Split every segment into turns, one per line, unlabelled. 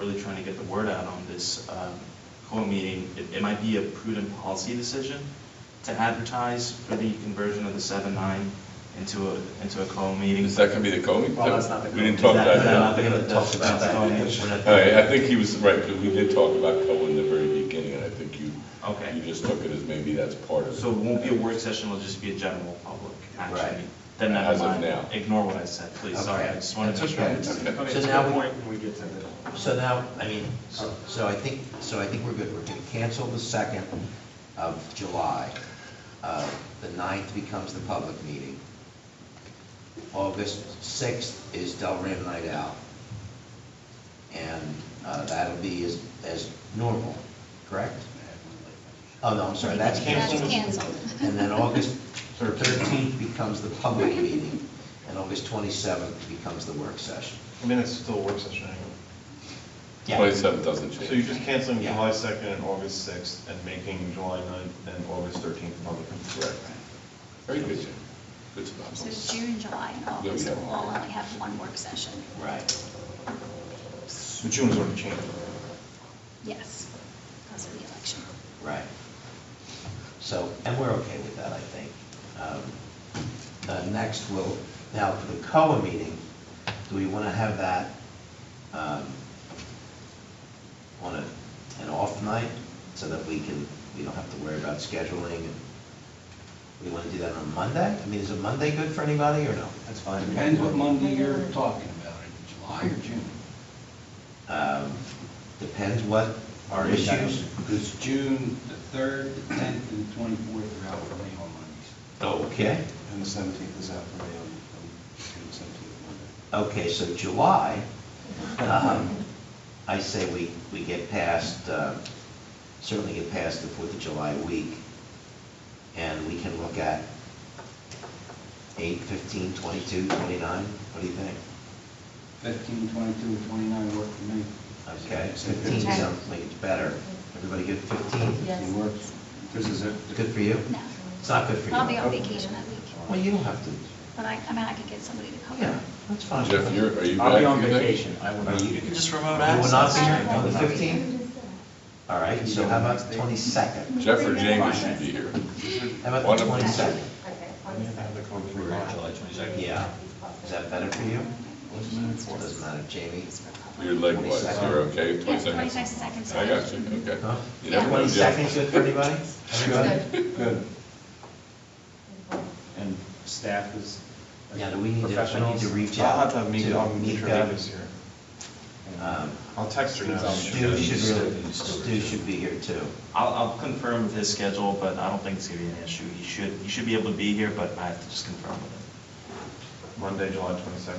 to get the word out on this um, COA meeting, it, it might be a prudent policy decision to advertise for the conversion of the seven nine into a, into a COA meeting.
Is that going to be the COVID?
Well, that's not the
We didn't
Is
talk
that-
about
no,
that.
they're gonna-
Talk about
that's
that.
COA meeting for that.
All right, I think he was right, because we did talk about Cohen in the very beginning, and I think you,
Okay.
you just took it as maybe that's part of it.
So it won't be a work session, it'll just be a general public action.
Right.
meeting. Then never
As of
mind,
now.
ignore what I said, please, sorry, I
Okay.
just wanted to.
That's okay.
Okay.
So
So
now we-
now, point when we get to the,
So now, I mean, so so I think, so I think we're good. We're going to cancel the 2nd of July. Uh, The 9th becomes the public meeting. August 6th is Delran Night Out. And uh, that'll be as, as normal, correct? Oh, no, I'm sorry, that's
That's
canceled.
canceled.
And then August 13th becomes the public meeting, and August 27th becomes the work session.
I mean, it's still a work session anyway.
Yeah.
27 doesn't
So you're
change.
just canceling
Yeah.
July 2nd and August 6th and making July 9th and August 13th public.
Correct. Very good, Jim. Good job.
So June, July, and August
have
will
one.
all only have one work session.
Right.
But June is already changed.
Yes, because of the election.
Right. So, and we're okay with that, I think. Um, uh, Next, we'll, now for the COA meeting, do we want to have that um, on a- an off night so that we can, we don't have to worry about scheduling? and We want to do that on Monday? I mean, is a Monday good for anybody or no? That's fine.
Depends what Monday you're talking about, July or June?
Um, Depends what our issues.
Because June, the third, the tenth, and the twenty-fourth are out for me on Mondays.
Okay.
And the seventeenth is out for me
um,
on, on the seventeenth, Monday.
Okay, so July, um, I say we, we get past, uh, certainly get past the Fourth of July week, and we can look at 8, 15, 22, 29, what do you think?
Fifteen, twenty-two, and twenty-nine work for me.
Okay, 15
Okay.
sounds like it's better. Everybody good 15?
Yes.
It works. This is it.
Good for you?
No.
It's not good for you?
I'll be on vacation that week,
Well, you don't have to,
but I, I mean, I could get somebody to cover.
yeah, that's fine.
Jeff, you're, are you back?
I'll be on
you think?
vacation, I will
Are
not
you-
be
You
here.
can just remote
You will not be
access.
here on the 15th? All right, so how about 22nd?
Jeff or James should be here.
How about
One
the
of-
22nd?
July 22nd.
Yeah. Is that better for you?
Doesn't
Doesn't matter, Jamie.
You're likewise, you're okay, 20
Yeah,
seconds?
22nd 's
I
second.
got you, okay.
Huh?
You never know, Jeff.
22nd, good for anybody? Everybody?
Good.
And staff is.
Yeah, do we need to- I need to
professionals.
reach
I'll
out
have to have
to
Mika, I'll make sure
Mika.
Mika's here.
Um,
I'll text her now.
Stu should really, Stu should be here too.
I'll, I'll confirm with his schedule, but I don't think it's gonna be an issue. He should, he should be able to be here, but I have to just confirm with him.
Monday, July 22nd.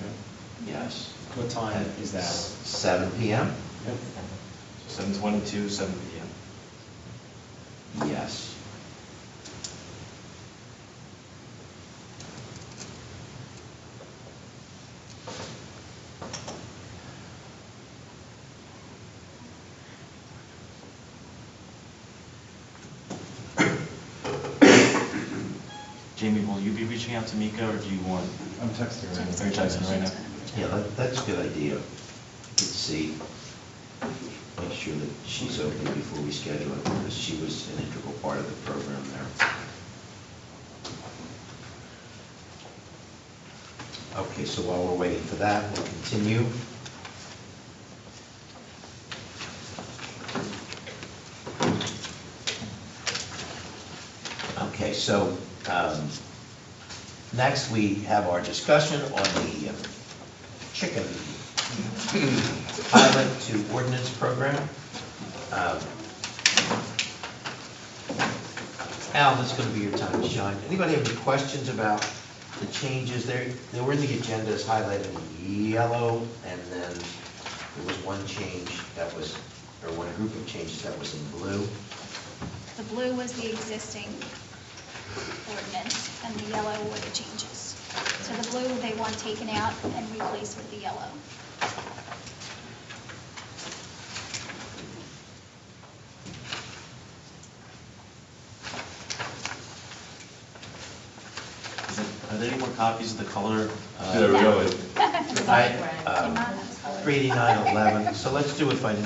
Yes.
What time is that?
Seven PM?
Seven twenty-two, seven P M.
Yes.
Jamie, will you be reaching out to Mika, or do you want?
I'm texting her.
Are you texting right now?
Yeah, that, that's a good idea. Let's see. Make sure that she's open before we schedule it, because she was an integral part of the program there. Okay, so while we're waiting for that, we'll continue. Okay, so, um, next we have our discussion on the uh, chicken pilot to ordinance program. Um, Al, this is going to be your time to shine. Anybody have any questions about the changes there? They were in the agenda as highlighted in yellow, and then there was one change that was, or one group of changes that was in blue.
The blue was the existing ordinance, and the yellow were the changes. So the blue, they want taken out and replaced with the yellow.
Is it- Are there any more copies of the color? uh,
Yeah, really.
I, um,
That was colored.
38911, so let's do it by